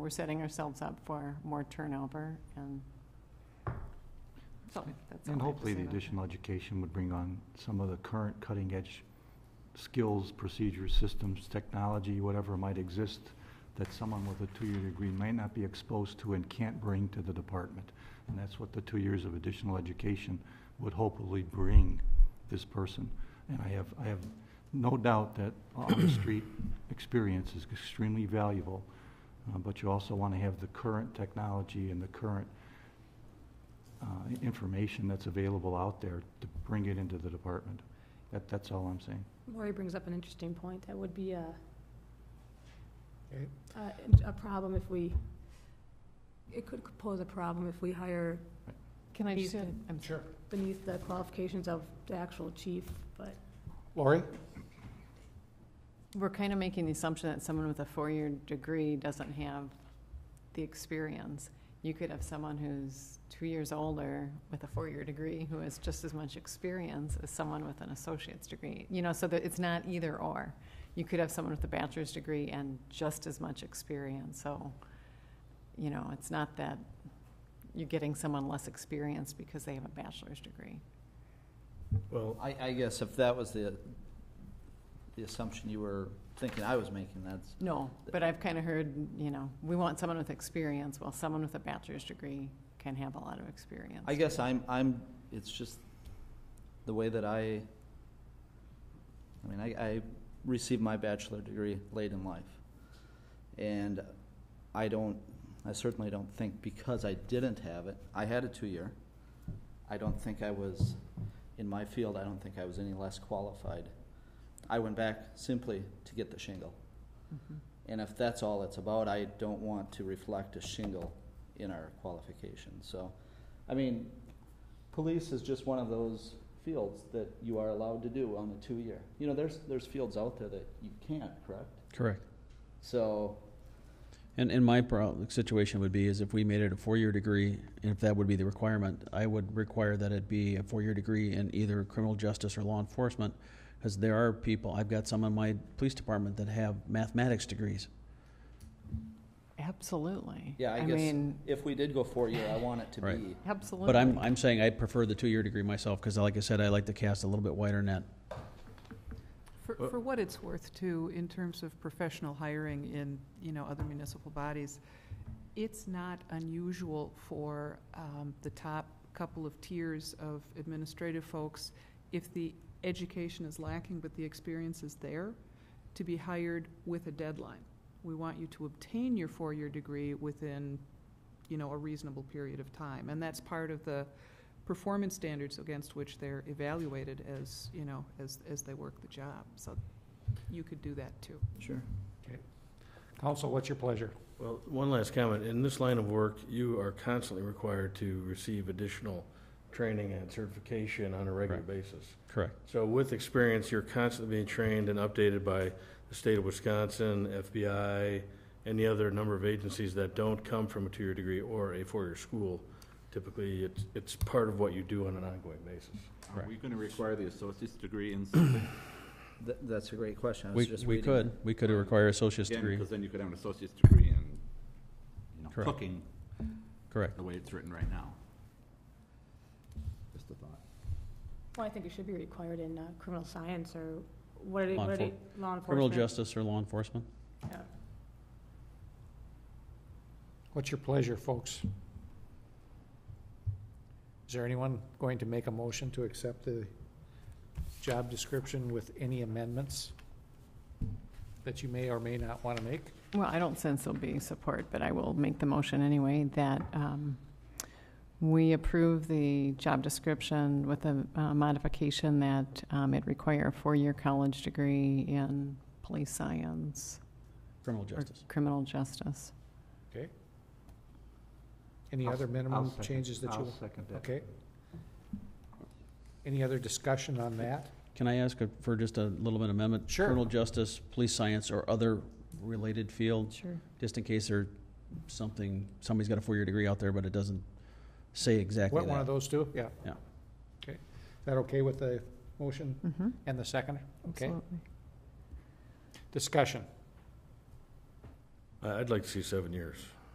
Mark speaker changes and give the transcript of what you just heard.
Speaker 1: we're setting ourselves up for more turnover and. so that's all I
Speaker 2: And
Speaker 1: have to
Speaker 2: hopefully
Speaker 1: say
Speaker 2: the
Speaker 1: about that.
Speaker 2: additional education would bring on some of the current cutting-edge skills, procedures, systems, technology, whatever might exist, that someone with a two-year degree might not be exposed to and can't bring to the department. And that's what the two years of additional education would hopefully bring this person. And I have, I have no doubt that on-the-street experience is extremely valuable, uh, but you also want to have the current technology and the current uh, information that's available out there to bring it into the department. That, that's all I'm saying.
Speaker 3: Lori brings up an interesting point. That would be a,
Speaker 4: Okay.
Speaker 3: a, a problem if we, it could pose a problem if we hire
Speaker 5: Can I just,
Speaker 3: Please
Speaker 5: add- I'm sorry.
Speaker 4: Sure.
Speaker 3: beneath the qualifications of the actual chief, but
Speaker 4: Lori?
Speaker 5: we're kind of making the assumption that someone with a four-year degree doesn't have the experience. You could have someone who's two years older with a four-year degree who has just as much experience as someone with an associate's degree. You know, so that it's not either or. You could have someone with a bachelor's degree and just as much experience, so, you know, it's not that you're getting someone less experienced because they have a bachelor's degree.
Speaker 6: Well, I, I guess if that was the, the assumption you were thinking I was making, that's,
Speaker 5: No, but I've kind of heard, you know, we want someone with experience, well, someone with a bachelor's degree can have a lot of experience.
Speaker 6: I guess I'm, I'm, it's just the way that I, I mean, I, I received my bachelor degree late in life. And I don't, I certainly don't think because I didn't have it, I had a two-year. I don't think I was, in my field, I don't think I was any less qualified. I went back simply to get the shingle.
Speaker 5: Mhm.
Speaker 6: And if that's all it's about, I don't want to reflect a shingle in our qualifications. So, I mean, police is just one of those fields that you are allowed to do on a two-year. You know, there's, there's fields out there that you can't, correct?
Speaker 7: Correct.
Speaker 6: So,
Speaker 7: And, and my pro- situation would be is if we made it a four-year degree, and if that would be the requirement, I would require that it be a four-year degree in either criminal justice or law enforcement, because there are people, I've got some in my police department that have mathematics degrees.
Speaker 5: Absolutely.
Speaker 6: yeah, I, guess
Speaker 5: mean,
Speaker 6: if we did go four-year, I want it to
Speaker 7: Right.
Speaker 6: be.
Speaker 5: Absolutely.
Speaker 7: But I'm, I'm saying I prefer the two-year degree myself, because like I said, I like to cast a little bit wider net.
Speaker 8: For, for what it's worth too, in terms of professional hiring in, you know, other municipal bodies, it's not unusual for, um, the top couple of tiers of administrative folks, if the education is lacking but the experience is there, to be hired with a deadline. We want you to obtain your four-year degree within, you know, a reasonable period of time. And that's part of the performance standards against which they're evaluated as, you know, as, as they work the job. So you could do that too.
Speaker 6: Sure.
Speaker 4: Council, what's your pleasure?
Speaker 9: Well, one last comment. In this line of work, you are constantly required to receive additional training and certification on a regular basis.
Speaker 7: Correct.
Speaker 9: So with experience, you're constantly being trained and updated by the state of Wisconsin, FBI, and the other number of agencies that don't come from a two-year degree or a four-year school. Typically, it's, it's part of what you do on an ongoing basis.
Speaker 7: Correct.
Speaker 10: Are we going to require the associate's degree in something?
Speaker 6: Th- that's a great question. I was
Speaker 7: We,
Speaker 6: just
Speaker 7: we
Speaker 6: reading
Speaker 7: could, we could require associate's
Speaker 10: Again,
Speaker 7: degree,
Speaker 10: because then you could have an associate's degree in, you know,
Speaker 7: Correct.
Speaker 10: cooking,
Speaker 7: correct.
Speaker 10: the way it's written right now. Just a thought.
Speaker 3: well, I think it should be required in uh, criminal science or what it,
Speaker 7: Law
Speaker 3: what it,
Speaker 7: enfor-
Speaker 3: law enforcement.
Speaker 7: Criminal justice or law enforcement?
Speaker 3: Yeah.
Speaker 4: What's your pleasure, folks? Is there anyone going to make a motion to accept the job description with any amendments that you may or may not want to make?
Speaker 5: Well, I don't sense there'll be support, but I will make the motion anyway, that um, we approve the job description with a uh, modification that um, it require a four-year college degree in police science
Speaker 7: Criminal
Speaker 5: or
Speaker 7: justice.
Speaker 5: criminal justice.
Speaker 4: Any
Speaker 2: I'll
Speaker 4: other
Speaker 2: s- I'll
Speaker 4: minimum
Speaker 2: second-
Speaker 4: changes that you?
Speaker 2: I'll second that.
Speaker 4: Okay. Any other discussion on that?
Speaker 7: Can I ask for just a little bit amendment?
Speaker 4: Sure.
Speaker 7: Criminal justice, police science, or other related fields?
Speaker 5: Sure.
Speaker 7: Just in case there's something, somebody's got a four-year degree out there, but it doesn't say exactly
Speaker 4: What, one of
Speaker 7: that.
Speaker 4: those two? Yeah.
Speaker 7: Yeah.
Speaker 4: Okay. Is that okay with the motion
Speaker 5: Mm-hmm,
Speaker 4: and the second? Okay.
Speaker 5: absolutely.
Speaker 4: Discussion.
Speaker 9: I- I'd like to see seven years.